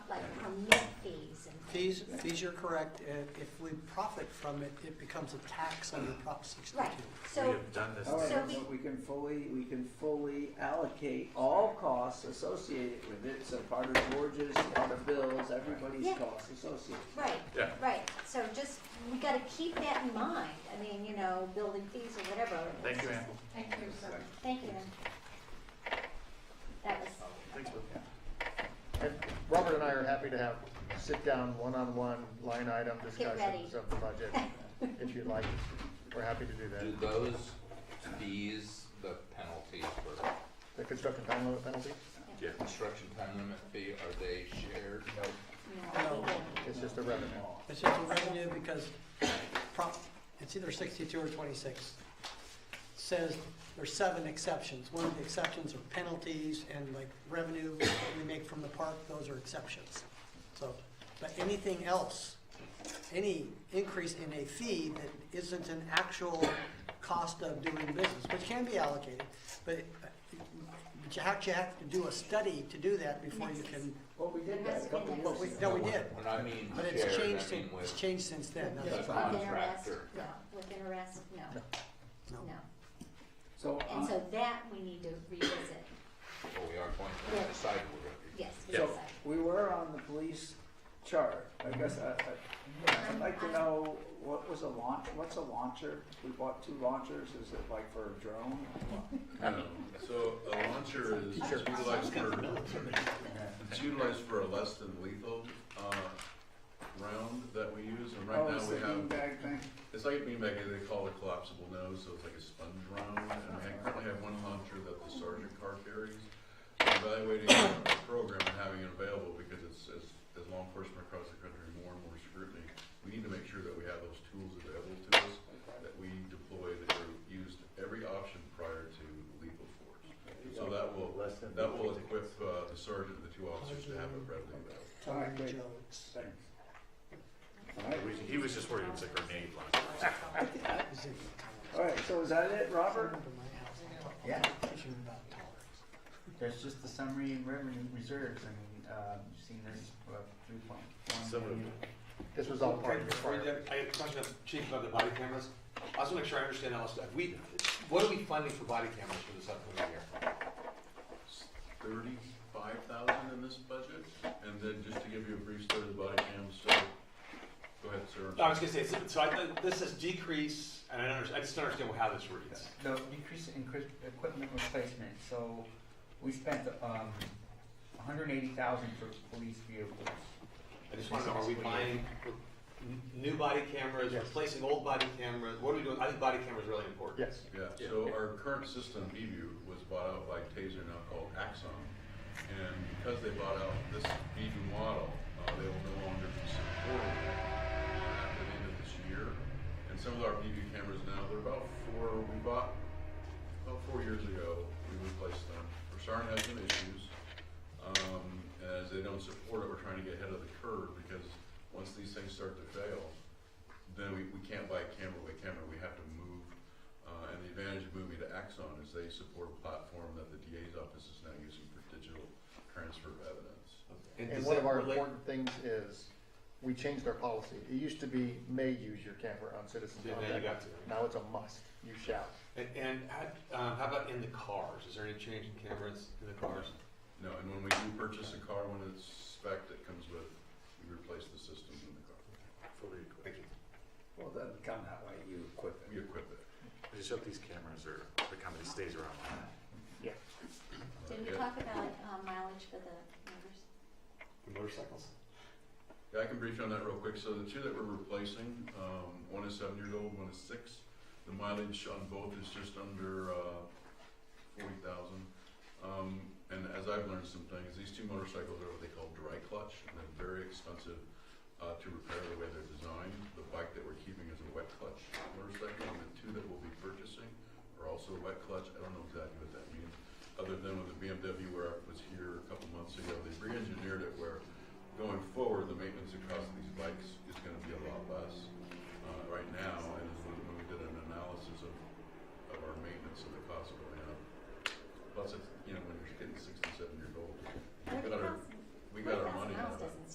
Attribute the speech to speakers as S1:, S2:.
S1: fees and
S2: Fees,
S1: things.
S2: fees, you're correct. If if we profit from it, it becomes a tax under Prop 62.
S1: Right,
S3: We
S1: so,
S3: have done this
S1: So
S4: However,
S1: we-
S3: thing.
S4: we can fully, we can fully allocate all costs associated with it, so part of George's, part of Bill's, everybody's
S1: Yeah.
S4: costs associated.
S1: right,
S3: Yeah.
S1: right, so just, we gotta keep that in mind, I mean, you know, building fees or whatever.
S3: Thank you, Ann.
S5: Thank you, sir.
S1: Thank you, Ann. That was,
S3: Thanks, Bill.
S6: And Robert and I are happy to have sit-down, one-on-one, line item discussions
S1: ready.
S6: of the budget, if you'd like. We're happy to do
S7: Do
S6: that.
S7: those fees, the penalties for
S6: The construction time limit penalty,
S3: Yeah.
S7: construction time limit fee, are they shared?
S1: no,
S2: No.
S1: we didn't.
S6: it's just a revenue.
S2: It's just a revenue because Prop, it's either 62 or 26. Says there's seven exceptions. One of the exceptions are penalties and like revenue that we make from the park, those are exceptions. So, but anything else, any increase in a fee that isn't an actual cost of doing business, which can be allocated, but but you have, you have to do a study to do that before you can,
S4: Well, we did that a couple
S1: Yes.
S2: but we,
S4: weeks ago.
S2: no, we did.
S7: When I mean
S2: But it's
S7: shared,
S2: changed,
S7: I mean
S2: sin- it's
S7: with
S2: changed since then,
S1: Yeah,
S2: that's
S7: the
S1: with
S2: fine.
S1: arrest,
S7: contractor.
S1: No, with an arrest, no,
S2: No.
S1: no.
S4: So,
S1: And
S4: uh,
S1: so that we need to revisit,
S7: Well, we are going
S1: Yeah.
S7: to decide we're going to.
S1: yes,
S3: Yeah.
S1: yes.
S4: so we were on the police chart. I guess I, I, I'd like
S1: Um,
S4: to know what was a launch, what's a launcher? We bought two launchers. Is it like for a drone?
S8: No, so a launcher is it's utilized for, it's utilized for a less than lethal, uh, round that we use, and right
S4: Oh, it's
S8: now
S4: the
S8: we have,
S4: beanbag thing.
S8: it's like a beanbag, they call it collapsible nose, so it's like a sponge round, and I currently have one launcher that the sergeant car carries. I'm Evaluating the program and having it available, because it's, as, as law enforcement across the country, more and more scrutiny, we need to make sure that we have those tools available to us, that we deployed or used every option prior to lethal force. So that will,
S6: Less than
S8: that will
S6: fifty
S8: equip uh, the sergeant and the two officers to have it readily available.
S4: All right, great.
S2: Jones.
S4: Thanks. All right.
S3: We- He was just worried it was a grenade launcher.
S2: That was in the comments.
S4: All right, so is that it,
S2: I
S4: Robert?
S2: remember my house, I talked
S9: Yeah.
S2: about tolerance.
S9: There's just the summary and revenue reserves, I mean, uh, you've seen this, uh, three point
S3: So
S9: one
S3: moved.
S9: million.
S6: This was all part of your prior.
S10: I have a question, of- Chief, about the body cameras. I just want to make sure I understand all this stuff. We, what are we funding for body cameras for this upcoming year?
S8: Thirty-five thousand in this budget, and then just to give you a brief story of the body cam, so, go ahead, sir.
S10: No, I was gonna say, so- so I, this is decrease, and I don't, under- I just don't understand how this reads.
S9: The decrease in cri- equipment replacement, so we spent, um, hundred and eighty thousand for police vehicles.
S10: I just want to know, are we buying n- new body cameras,
S6: Yes.
S10: replacing old body cameras? What are we doing? I think body cameras are really important.
S6: Yes,
S8: Yeah, so our current system, BView, was bought out by Taser, now called Axon. And because they bought out this BView model, uh, they will no longer be supported after the end of this year. And some of our BView cameras now, they're about four, we bought about four years ago, we replaced them. Versaren has some issues. Um, as they don't support it, we're trying to get ahead of the curve because once these things start to fail, then we, we can't buy camera by camera, we have to move. Uh, and the advantage of moving to Axon is they support a platform that the DA's office is now using for digital transfer of evidence.
S6: and
S10: does
S6: one
S10: that
S6: of our
S10: relate-
S6: important things is, we changed our policy. It used to be, may use your camera on citizen
S10: Yeah, now you
S6: contact.
S10: got to.
S6: Now it's a must, you shall.
S10: And, and how- um, how about in the cars? Is there any change in cameras in the cars?
S8: No, and when we do purchase a car, when it's spec that comes with, we replace the system in the car.
S3: Fully equipped.
S10: Thank you.
S4: Well, it doesn't come that way, you equip
S8: We equip it.
S3: I just hope these cameras are, the company stays around.
S1: Did we
S8: Yeah.
S1: talk about uh, mileage for the members?
S10: The motorcycles?
S8: Yeah, I can brief you on that real quick. So the two that we're replacing, um, one is seven years old, one is six. The mileage on both is just under, uh, forty thousand. Um, and as I've learned some things, these two motorcycles are what they call dry clutch, and they're very expensive, uh, to repair the way they're designed. The bike that we're keeping is a wet clutch motorcycle, and the two that we'll be purchasing are also wet clutch. I don't know exactly what that means, other than with the BMW where I was here a couple months ago, they re-engineered it where going forward, the maintenance across these bikes is gonna be a lot less. Uh, right now, and when we did an analysis of, of our maintenance and the cost going up. Plus, it's, you know, when you're getting sixty-seven years old, we got our, we got our money out of it.
S1: doesn't